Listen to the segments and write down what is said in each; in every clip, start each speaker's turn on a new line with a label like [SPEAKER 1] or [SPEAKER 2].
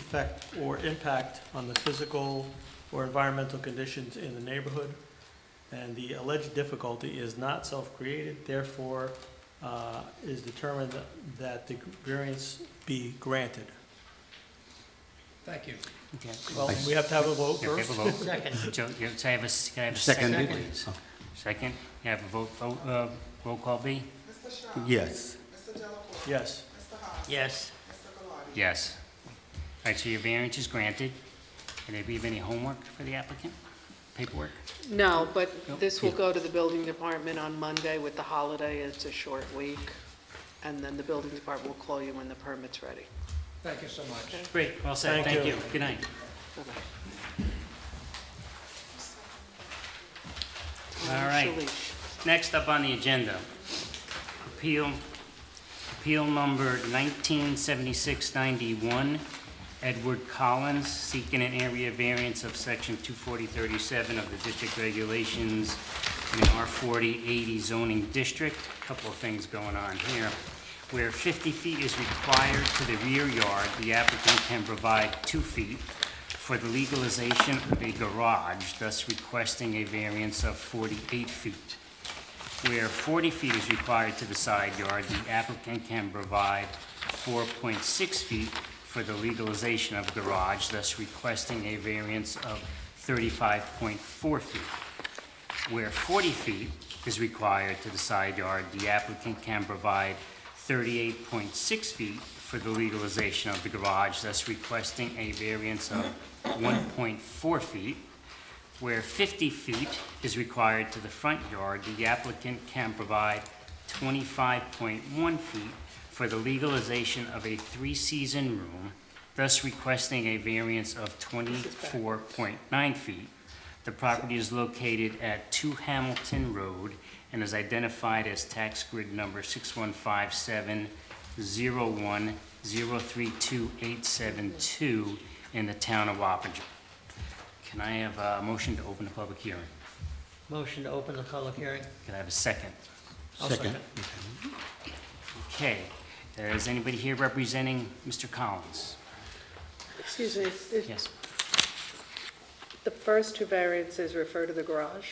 [SPEAKER 1] effect or impact on the physical or environmental conditions in the neighborhood. And the alleged difficulty is not self-created, therefore, uh, is determined that the variance be granted.
[SPEAKER 2] Thank you.
[SPEAKER 3] Okay.
[SPEAKER 1] Well, we have to have a vote
[SPEAKER 3] Can I
[SPEAKER 1] first.
[SPEAKER 3] have a vote?
[SPEAKER 2] Second.
[SPEAKER 3] Jo- jo- Can I have a, s- can I have a second,
[SPEAKER 4] Seconded?
[SPEAKER 3] please? Second, can I have a vote, vote, uh, roll call B?
[SPEAKER 4] Yes.
[SPEAKER 1] Yes,
[SPEAKER 2] Yes.
[SPEAKER 3] Yes. All right, so your variance is granted. Can there be any homework for the applicant? Paperwork?
[SPEAKER 5] No, but
[SPEAKER 3] Nope.
[SPEAKER 5] this will go to the building department on Monday with the holiday, it's a short week, and then the building department will call you when the permit's ready.
[SPEAKER 2] Thank you so much.
[SPEAKER 3] Great, well said,
[SPEAKER 1] Thank
[SPEAKER 3] thank
[SPEAKER 1] you.
[SPEAKER 3] you. Good night.
[SPEAKER 5] Bye-bye.
[SPEAKER 3] All right.
[SPEAKER 5] Shalish.
[SPEAKER 3] Next up on the agenda, appeal, appeal number 197691, Edward Collins, seeking an area variance of section 24037 of the district regulations in an R4080 zoning district. Couple of things going on here. Where 50 feet is required to the rear yard, the applicant can provide 2 feet for the legalization of a garage, thus requesting a variance of 48 feet where 40 feet is required to the side yard, the applicant can provide 4.6 feet for the legalization of garage, thus requesting a variance of 35.4 feet. Where 40 feet is required to the side yard, the applicant can provide 38.6 feet for the legalization of the garage, thus requesting a variance of 1.4 feet where 50 feet is required to the front yard, the applicant can provide 25.1 feet for the legalization of a three-season room, thus requesting a variance of 24.9 feet. The property is located at 2 Hamilton Road and is identified as tax grid number 61570103287 in the town of Wappinger. Can I have a motion to open the public hearing?
[SPEAKER 2] Motion to open the public hearing?
[SPEAKER 3] Can I have a second?
[SPEAKER 4] Second.
[SPEAKER 3] Okay, is anybody here representing Mr. Collins?
[SPEAKER 5] Excuse me, is-
[SPEAKER 3] Yes,
[SPEAKER 5] the first two variances refer to the garage?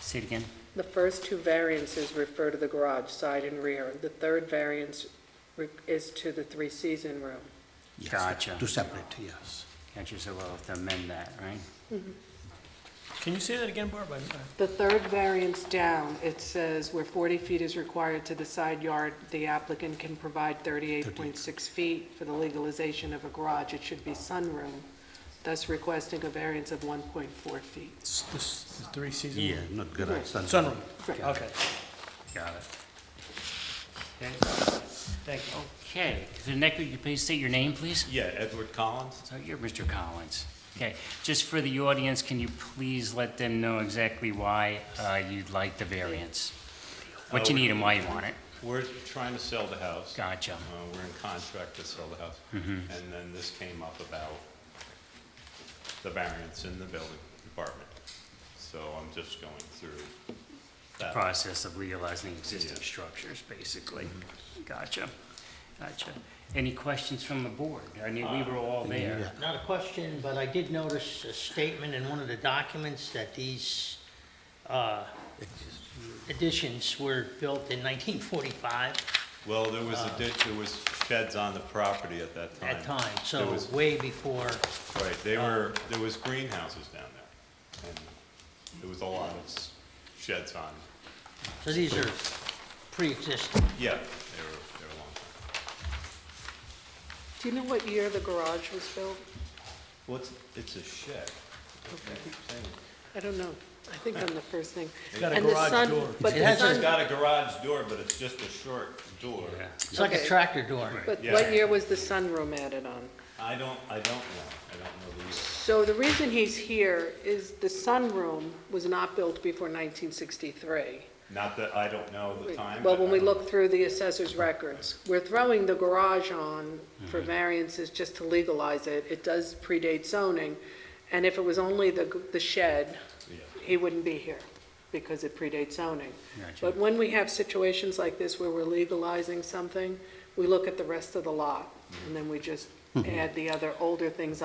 [SPEAKER 3] say it again.
[SPEAKER 5] The first two variances refer to the garage, side and rear. The third variance re- is to the three-season room.
[SPEAKER 4] Yes.
[SPEAKER 3] Gotcha.
[SPEAKER 4] Two separate, yes.
[SPEAKER 3] Can't you so well have to amend that, right?
[SPEAKER 1] can you say that again, Barb? uh, I- I-
[SPEAKER 5] The third variance down, it says where 40 feet is required to the side yard, the applicant can provide 38.6 feet for the legalization of a garage. It should be sunroom, thus requesting a variance of 1.4 feet.
[SPEAKER 1] It's this- the three season.
[SPEAKER 4] Yeah, not garage, sunroom.
[SPEAKER 1] Sunroom,
[SPEAKER 5] Right.
[SPEAKER 1] okay.
[SPEAKER 3] Got it. Okay.
[SPEAKER 2] Thank you.
[SPEAKER 3] Okay, to the next, could you please state your name, please?
[SPEAKER 6] Yeah, Edward Collins.
[SPEAKER 3] So you're Mr. Collins. Okay, just for the audience, can you please let them know exactly why uh, you'd like the variance? What you need and why you want it?
[SPEAKER 6] We're trying to sell the house.
[SPEAKER 3] Gotcha.
[SPEAKER 6] Uh, We're in contract to sell the house. And then this came up about the variance in the building department. So I'm just going through that.
[SPEAKER 3] process of legalizing existing
[SPEAKER 6] Yeah.
[SPEAKER 3] structures, basically. Gotcha, gotcha. Any questions from the board? I mean, we were all there.
[SPEAKER 2] Not a question, but I did notice a statement in one of the documents that these uh, additions were built in 1945
[SPEAKER 6] Well, there was a ditch, there was sheds on the property at that time.
[SPEAKER 2] at time,
[SPEAKER 6] There
[SPEAKER 2] so
[SPEAKER 6] was-
[SPEAKER 2] way before,
[SPEAKER 6] Right, they were, there was greenhouses down there. And there was a lot of s- sheds on.
[SPEAKER 2] so these are pre-existing.
[SPEAKER 6] Yeah, they were, they were long. time.
[SPEAKER 5] Do you know what year the garage was built?
[SPEAKER 6] Well, it's, it's a shed. I keep saying it.
[SPEAKER 5] I don't know. I think on the first thing.
[SPEAKER 1] Got a
[SPEAKER 5] And the
[SPEAKER 1] garage
[SPEAKER 5] sun-
[SPEAKER 1] door.
[SPEAKER 5] But
[SPEAKER 2] It
[SPEAKER 5] the
[SPEAKER 2] has a-
[SPEAKER 6] It's
[SPEAKER 5] sun,
[SPEAKER 6] got a garage door, but it's just a short door.
[SPEAKER 3] Yeah.
[SPEAKER 2] It's like a
[SPEAKER 5] Okay.
[SPEAKER 2] tractor door.
[SPEAKER 5] but
[SPEAKER 6] yeah.
[SPEAKER 5] what year was the sunroom added on?
[SPEAKER 6] I don't, I don't know, I don't know the year.
[SPEAKER 5] So the reason he's here is the sunroom was not built before 1963.
[SPEAKER 6] Not that, I don't know the time.
[SPEAKER 5] Well,
[SPEAKER 6] but
[SPEAKER 5] when
[SPEAKER 6] I
[SPEAKER 5] we
[SPEAKER 6] don't-
[SPEAKER 5] look through the assessor's records, we're throwing the garage on
[SPEAKER 6] Mm-hmm.
[SPEAKER 5] for variances just to legalize it. It does predate zoning, and if it was only the, g- the shed,
[SPEAKER 6] Yeah.
[SPEAKER 5] he wouldn't be here, because it predates zoning.
[SPEAKER 3] Gotcha.
[SPEAKER 5] But when we have
[SPEAKER 6] Mm-hmm.
[SPEAKER 5] situations like this where we're legalizing something, we look at the rest of the lot, and then we just add the other older things on.